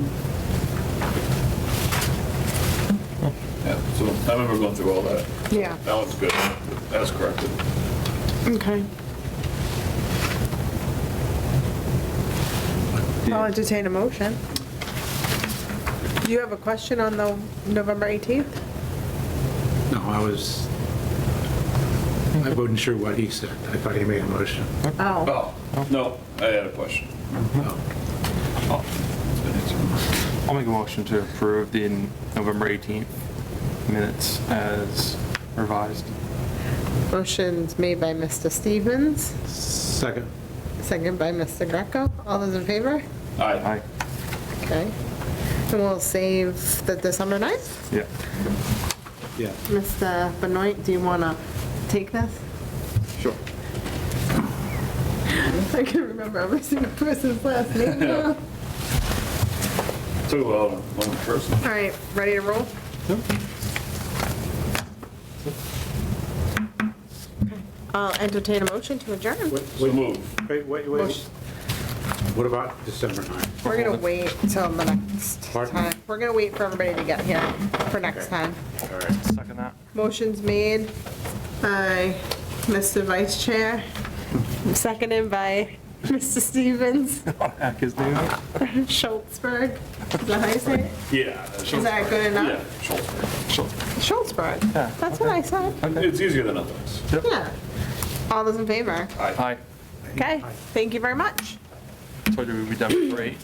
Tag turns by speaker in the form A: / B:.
A: I remember going through all that.
B: Yeah,
A: That one's good. That's corrected.
B: okay. I'll entertain a motion. Do you have a question on the November 18th?
C: No, I was, I wasn't sure what he said. I thought he made a motion.
B: Oh,
A: Oh, no, I had a question.
C: Oh.
D: I'll make a motion to approve the November 18th minutes as revised.
B: motion's made by Mr. Stevens,
C: Second.
B: second by Mr. Greco. All those in favor?
A: Aye.
D: Aye.
B: Okay. And we'll save the December 9th.
D: Yeah.
C: Yeah.
B: Mr. Benoit, do you want to take this?
D: Sure.
B: I can remember every single person's last name now.
A: Two, uh, one person.
B: All right, ready to roll? I'll entertain a motion to adjourn.
C: Wait,
A: So
C: wait,
A: move.
C: wait, wait. wait.
B: Motion.
C: What about December 9th?
B: We're gonna wait till the next
C: Pardon?
B: time. We're gonna wait for everybody to get here for next time.
C: All right.
D: Second that.
B: Motion's made by Mr. Vice Chair, seconded by Mr. Stevens,
D: Heck, his name?
B: Schultzberg. Is that how you say it?
A: Yeah.
B: Is that good
A: Yeah,
B: enough? Schultzberg.
D: Yeah,
B: That's what I said.
A: Schultzberg. It's easier than others.
B: Yeah. All those in favor?
D: Aye.
B: Okay, thank you very much.
D: Told you we'd be done for eight.